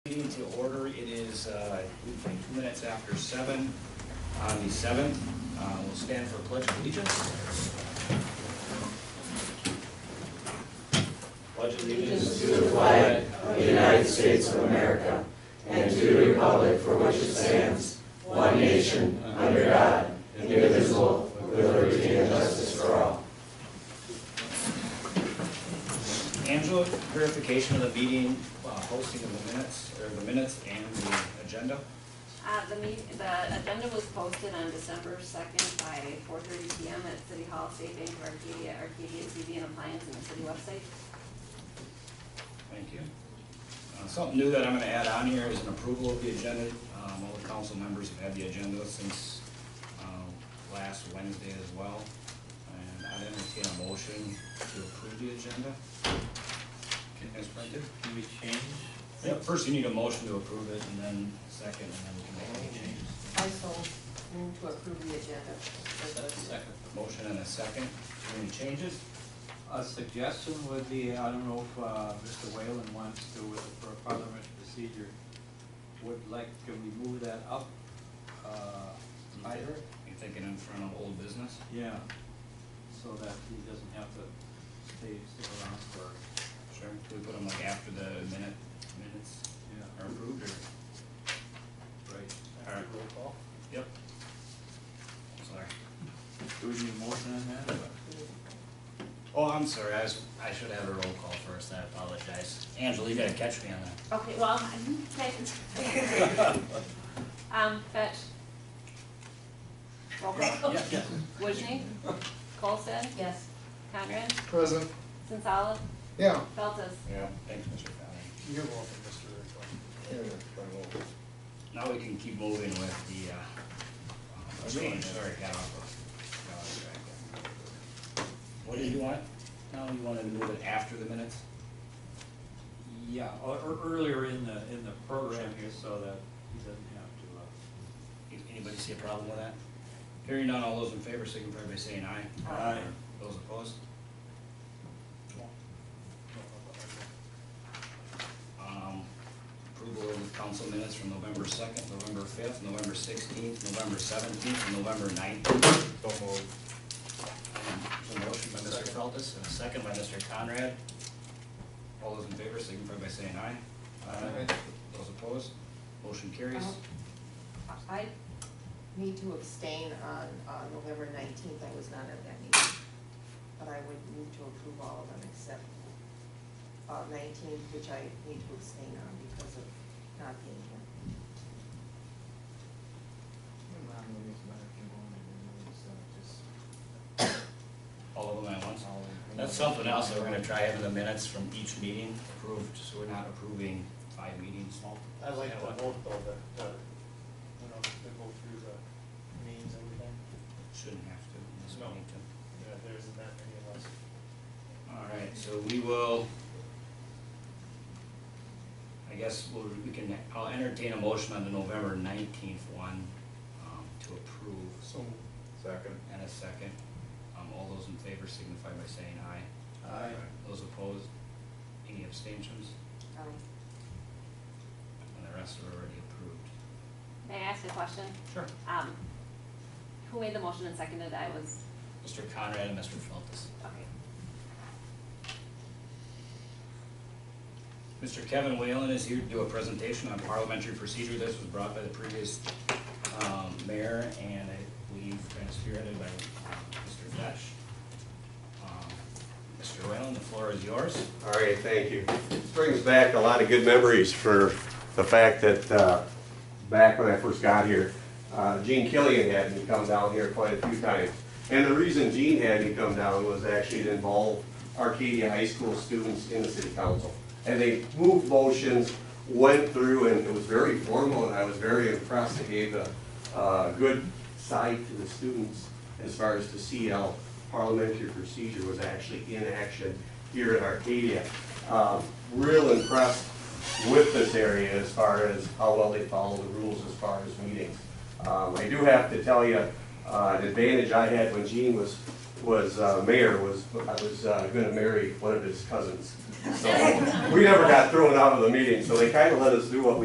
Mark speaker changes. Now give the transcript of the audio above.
Speaker 1: to order. It is, uh, two minutes after seven on the seventh. Uh, We'll stand for a pledge of allegiance. Pledge of allegiance to the flag. Angela, verification of the meeting, uh, hosting of the minutes, or the minutes and the agenda.
Speaker 2: Uh, the meet, the agenda was posted on December second by four thirty PM at City Hall, State Bank of Arcadia, Arcadia TV and Appliance and the city website.
Speaker 1: Thank you. Uh, Something new that I'm gonna add on here is an approval of the agenda. Um, all the council members have had the agenda since, uh, last Wednesday as well. And I entertain a motion to approve the agenda. As printed.
Speaker 3: Can we change?
Speaker 1: Yeah, first you need a motion to approve it and then second, and then we can make any changes.
Speaker 4: I so move to approve the agenda.
Speaker 3: Second.
Speaker 1: Motion and a second. Any changes?
Speaker 3: A suggestion would be, I don't know if uh, Mr. Whalen wants to, with- for a parliamentary procedure, would like, can we move that up uh, higher?
Speaker 1: You thinking in front of old business?
Speaker 3: Yeah, so that he doesn't have to stay, stick around for,
Speaker 1: Sure. Do we put them like after the minute, minutes
Speaker 3: yeah,
Speaker 1: are approved or?
Speaker 3: right.
Speaker 1: Alright, roll call? Yep. Sorry.
Speaker 3: Do we need a motion on that?
Speaker 1: Oh, I'm sorry, I was, I should have a roll call first, I apologize. Angela, you gotta catch me on that.
Speaker 2: Okay, well, I'm, Um, Fetch. Roll call.
Speaker 3: Yes.
Speaker 2: Wojni. Colson.
Speaker 4: Yes.
Speaker 2: Conrad.
Speaker 5: Present.
Speaker 2: Sensala.
Speaker 5: Yeah.
Speaker 2: Feltes.
Speaker 1: Yeah. Thanks, Mr. Fallon.
Speaker 5: You're welcome, Mr. Rickland.
Speaker 1: Now we can keep moving with the, uh, change, sorry, got off of- got off track. What did you want? Now you wanted to move it after the minutes?
Speaker 3: Yeah, or, or earlier in the, in the program here, so that he doesn't have to, uh,
Speaker 1: Anybody see a problem with that? Hearing none, all those in favor signify by saying aye.
Speaker 3: Aye.
Speaker 1: Those opposed? Um, Approval of the council minutes from November second, November fifth, November sixteenth, November seventeenth, and November nineteenth.
Speaker 5: Don't move.
Speaker 1: A motion by Mr. Feltus and a second by Mr. Conrad. All those in favor signify by saying aye.
Speaker 5: Aye.
Speaker 1: Those opposed? Motion carries.
Speaker 4: I need to abstain on, uh November nineteenth, I was not at that meeting. But I would move to approve all of them except, uh, nineteen, which I need to abstain on because of not being here.
Speaker 1: All of them at once. That's something else that we're gonna try having the minutes from each meeting approved, so we're not approving five meetings.
Speaker 6: I like the vote though, that, that, you know, they go through the means, everything.
Speaker 1: Shouldn't have to, unless we
Speaker 6: No.
Speaker 1: need to.
Speaker 6: Yeah, there isn't that many of us.
Speaker 1: All right, so we will, I guess we'll, we can, I'll entertain a motion on the November nineteenth one, um, to approve.
Speaker 6: So,
Speaker 5: Second.
Speaker 1: And a second, um, all those in favor signify by saying aye.
Speaker 3: Aye.
Speaker 1: Those opposed, any abstentions,
Speaker 4: Um,
Speaker 1: and the rest are already approved.
Speaker 2: May I ask a question?
Speaker 1: Sure.
Speaker 2: Um, who made the motion and seconded? I was,
Speaker 1: Mr. Conrad and Mr. Feltes.
Speaker 2: okay.
Speaker 1: Mr. Kevin Whalen is here to do a presentation on parliamentary procedure. This was brought by the previous um, mayor and I believe kind of spearheaded by uh, Mr. Fesh. Um, Mr. Whalen, the floor is yours.
Speaker 7: All right, thank you. This brings back a lot of good memories for the fact that, uh, back when I first got here, uh, Gene Killian had me come down here quite a few times. And the reason Gene had me come down was actually to involve Arcadia High School students in the city council. And they moved motions, went through, and it was very formal, and I was very impressed. It gave a, a good side to the students as far as to see how parliamentary procedure was actually in action here in Arcadia. Um, Real impressed with this area as far as how well they follow the rules as far as meetings. Um, I do have to tell you, uh, an advantage I had when Gene was, was uh, mayor was, I was uh, gonna marry one of his cousins. So, we never got thrown out of the meeting, so they kinda let us do what we